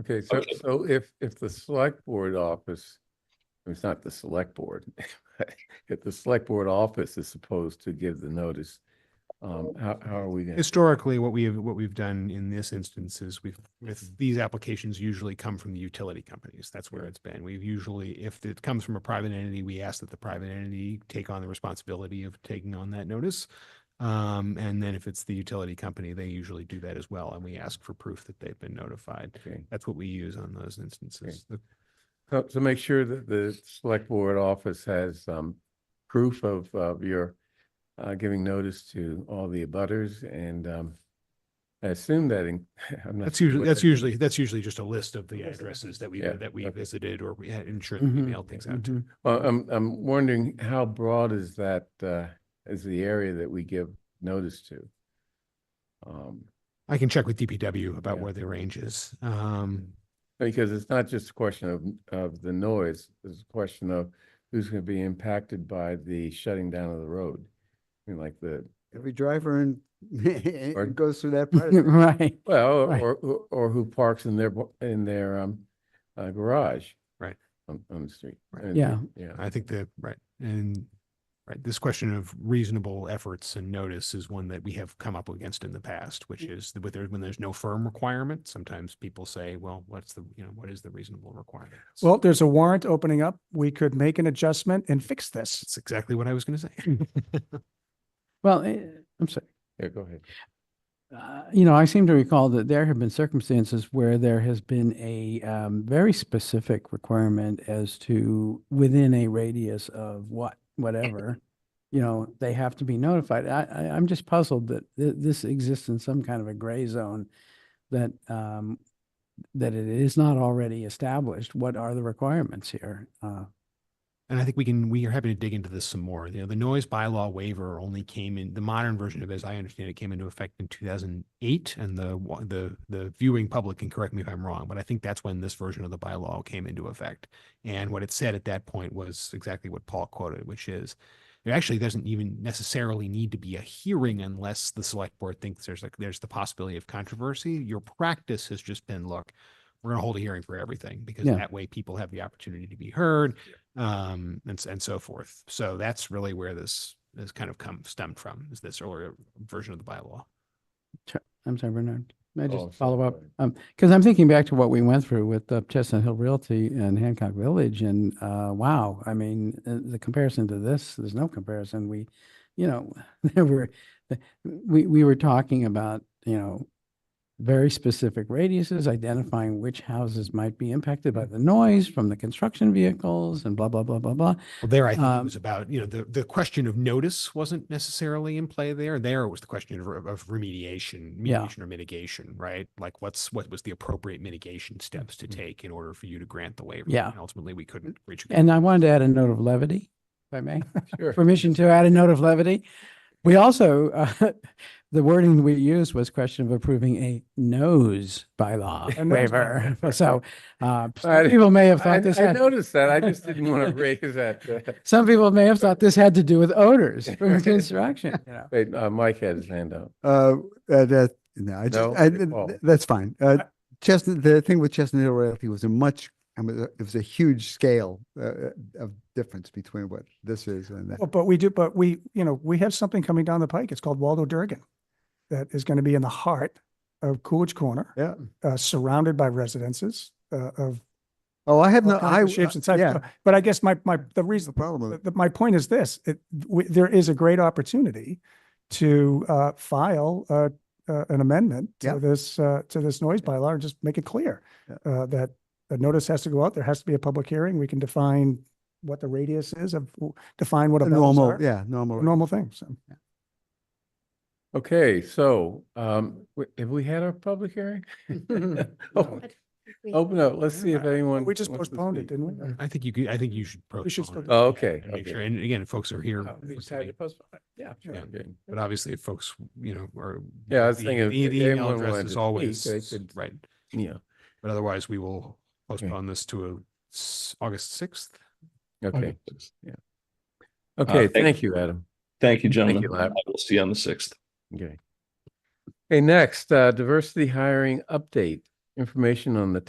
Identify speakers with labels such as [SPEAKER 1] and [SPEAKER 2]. [SPEAKER 1] Okay, so,
[SPEAKER 2] Okay.
[SPEAKER 1] so if, if the select board office, it's not the select board, if the select board office is supposed to give the notice, um, how, how are we gonna?
[SPEAKER 3] Historically, what we have, what we've done in this instance is we've, with these applications usually come from the utility companies. That's where it's been. We've usually, if it comes from a private entity, we ask that the private entity take on the responsibility of taking on that notice. Um, and then if it's the utility company, they usually do that as well. And we ask for proof that they've been notified.
[SPEAKER 1] Okay.
[SPEAKER 3] That's what we use on those instances. The-
[SPEAKER 1] So, so make sure that the select board office has, um, proof of, of your, uh, giving notice to all the abutters and, um, I assume that in, I'm not.
[SPEAKER 3] That's
[SPEAKER 1] sure
[SPEAKER 3] usually,
[SPEAKER 1] what
[SPEAKER 3] that's
[SPEAKER 1] that-
[SPEAKER 3] usually, that's usually just a list of the
[SPEAKER 4] List of
[SPEAKER 3] addresses that we,
[SPEAKER 1] Yeah,
[SPEAKER 3] that we
[SPEAKER 1] okay.
[SPEAKER 3] visited or we had ensured that we
[SPEAKER 5] Mm-hmm.
[SPEAKER 1] Mhm.
[SPEAKER 3] mailed things out to.
[SPEAKER 1] Mhm. Well, I'm, I'm wondering how broad is that, uh, is the area that we give notice to? Um,
[SPEAKER 3] I can check with DPW about
[SPEAKER 1] Yeah.
[SPEAKER 3] where the range is. Um,
[SPEAKER 1] Because it's not just a question of, of the noise, it's a question of who's gonna be impacted by the shutting down of the road. I mean, like the,
[SPEAKER 4] Every driver in,
[SPEAKER 1] Pardon?
[SPEAKER 4] it goes through that part. of it.
[SPEAKER 5] Right.
[SPEAKER 1] well,
[SPEAKER 5] Right.
[SPEAKER 1] or, or- or who parks in their, bo- in their, um, uh, garage.
[SPEAKER 3] Right.
[SPEAKER 1] On, on the street.
[SPEAKER 3] Right.
[SPEAKER 1] And-
[SPEAKER 5] Yeah.
[SPEAKER 1] Yeah.
[SPEAKER 3] I think the, right, and, right, this question of reasonable efforts and notice is one that we have come up against in the past, which is that with there, when there's no firm requirement, sometimes people say, well, what's the, you know, what is the reasonable requirement? It's-
[SPEAKER 5] Well, there's a warrant opening up. We could make an adjustment and fix this.
[SPEAKER 3] It's exactly what I was gonna say.
[SPEAKER 5] Well, eh, I'm sorry.
[SPEAKER 1] Yeah, go ahead.
[SPEAKER 5] Uh, You know, I seem to recall that there have been circumstances where there has been a um, very specific requirement as to within a radius of what, whatever, you know, they have to be notified. I, I, I'm just puzzled that th- this exists in some kind of a gray zone that, um, that it is not already established. What are the requirements here? Uh,
[SPEAKER 3] And I think we can, we are happy to dig into this some more. You know, the noise bylaw waiver only came in, the modern version of it, as I understand it, came into effect in two thousand eight. And the, wa- the, the viewing public can correct me if I'm wrong, but I think that's when this version of the bylaw came into effect. And what it said at that point was exactly what Paul quoted, which is there actually doesn't even necessarily need to be a hearing unless the select board thinks there's like, there's the possibility of controversy. Your practice has just been, look, we're gonna hold a hearing for everything because
[SPEAKER 5] Yeah.
[SPEAKER 3] that way people have the opportunity to be heard um, and s- and so forth. So that's really where this has kind of come stemmed from is this earlier version of the bylaw.
[SPEAKER 5] I'm sorry, Bernard. May I
[SPEAKER 1] Oh,
[SPEAKER 5] just
[SPEAKER 1] so-
[SPEAKER 5] follow up?
[SPEAKER 1] sorry.
[SPEAKER 5] Um, because I'm thinking back to what we went through with uh, Chestnut Hill Realty and Hancock Village and, uh, wow, I mean, uh, the comparison to this, there's no comparison. We, you know, there were, th- we, we were talking about, you know, very specific radiuses, identifying which houses might be impacted by the noise from the construction vehicles and blah, blah, blah, blah, blah.
[SPEAKER 3] Well, there I think it
[SPEAKER 5] Um,
[SPEAKER 3] was about you know the the question of notice wasn't necessarily in play there. There it was the question of, re- of remediation,
[SPEAKER 5] Yeah.
[SPEAKER 3] mediation or mitigation, right? Like what's what was the appropriate mitigation steps to
[SPEAKER 1] Mhm.
[SPEAKER 3] take in order for you to grant the waiver?
[SPEAKER 5] Mm-hmm. Yeah.
[SPEAKER 3] And ultimately, we couldn't reach. a
[SPEAKER 5] And I wanted to add a note of levity, if I may.
[SPEAKER 1] Sure.
[SPEAKER 5] permission to add a note of levity. We also, uh, the wording we used was question of approving a nose bylaw
[SPEAKER 1] A nose
[SPEAKER 5] waiver.
[SPEAKER 1] bylaw.
[SPEAKER 5] So uh,
[SPEAKER 1] I-
[SPEAKER 5] some people may have
[SPEAKER 1] I,
[SPEAKER 5] thought this
[SPEAKER 1] I
[SPEAKER 5] had,
[SPEAKER 1] noticed that. I just didn't want to raise that. uh,
[SPEAKER 5] some people may have thought this had to do with odors from construction, you know.
[SPEAKER 1] Wait, uh, Mike had his hand up.
[SPEAKER 4] Uh, uh, that, no, I
[SPEAKER 1] No,
[SPEAKER 4] just, I,
[SPEAKER 1] they
[SPEAKER 4] th-
[SPEAKER 1] fall.
[SPEAKER 4] th- that's fine. Uh, Chestnut, the thing with Chestnut Hill Realty was a much, I mean, it was a huge scale, uh, uh, of difference between what this is and that.
[SPEAKER 6] Well, but we do, but we, you know, we have something coming down the pike. It's called Waldo Durgan. That is going to be in the heart of Coolidge Corner,
[SPEAKER 4] Yeah.
[SPEAKER 6] uh, surrounded by residences uh, of
[SPEAKER 4] Oh, I have
[SPEAKER 6] all
[SPEAKER 4] no,
[SPEAKER 6] kinds
[SPEAKER 4] I,
[SPEAKER 6] of shapes and
[SPEAKER 4] uh,
[SPEAKER 6] sizes.
[SPEAKER 4] yeah,
[SPEAKER 6] But I guess my, my, the
[SPEAKER 4] the
[SPEAKER 6] reason,
[SPEAKER 4] problem.
[SPEAKER 6] the-
[SPEAKER 4] with-
[SPEAKER 6] the- my point is this, it, we, there is a great opportunity to, uh, file, uh, uh, an amendment
[SPEAKER 4] Yeah.
[SPEAKER 6] to this, uh, to this noise bylaw and just make it clear,
[SPEAKER 4] Yeah.
[SPEAKER 6] uh, that a notice has to go out, there has to be a public hearing. We can define what the radius is of, define what a
[SPEAKER 4] a Normal, yeah, normal.
[SPEAKER 6] Normal thing, so.
[SPEAKER 1] Okay, so, um, w- have we had our public hearing? Oh, Open up, let's see if anyone.
[SPEAKER 6] We just
[SPEAKER 1] wants to
[SPEAKER 6] postponed it,
[SPEAKER 1] speak.
[SPEAKER 6] didn't we?
[SPEAKER 3] I think you could. I think you should.
[SPEAKER 6] should
[SPEAKER 3] postpone
[SPEAKER 6] still-
[SPEAKER 3] it
[SPEAKER 1] Oh, okay,
[SPEAKER 3] and Make sure.
[SPEAKER 1] okay.
[SPEAKER 3] And again, if folks are here.
[SPEAKER 1] Oh, we
[SPEAKER 3] listening,
[SPEAKER 1] decided to postpone it. Yeah, sure.
[SPEAKER 3] Yeah.
[SPEAKER 1] okay.
[SPEAKER 3] But obviously, if folks, you know, are.
[SPEAKER 1] Yeah, I was
[SPEAKER 3] the-
[SPEAKER 1] thinking if
[SPEAKER 3] The the email
[SPEAKER 1] anyone
[SPEAKER 3] address
[SPEAKER 1] wanted to
[SPEAKER 3] is
[SPEAKER 1] speak, they
[SPEAKER 3] always,
[SPEAKER 1] could-
[SPEAKER 3] right,
[SPEAKER 1] Yeah,
[SPEAKER 3] but otherwise we will postpone this to a s- August sixth. Uh,
[SPEAKER 1] okay, yeah. Okay,
[SPEAKER 2] thank-
[SPEAKER 1] thank you, Adam.
[SPEAKER 2] Thank you, gentlemen.
[SPEAKER 1] you, Lab.
[SPEAKER 2] I will see you on the sixth.
[SPEAKER 1] Okay. Okay, next, uh, diversity hiring update, information on the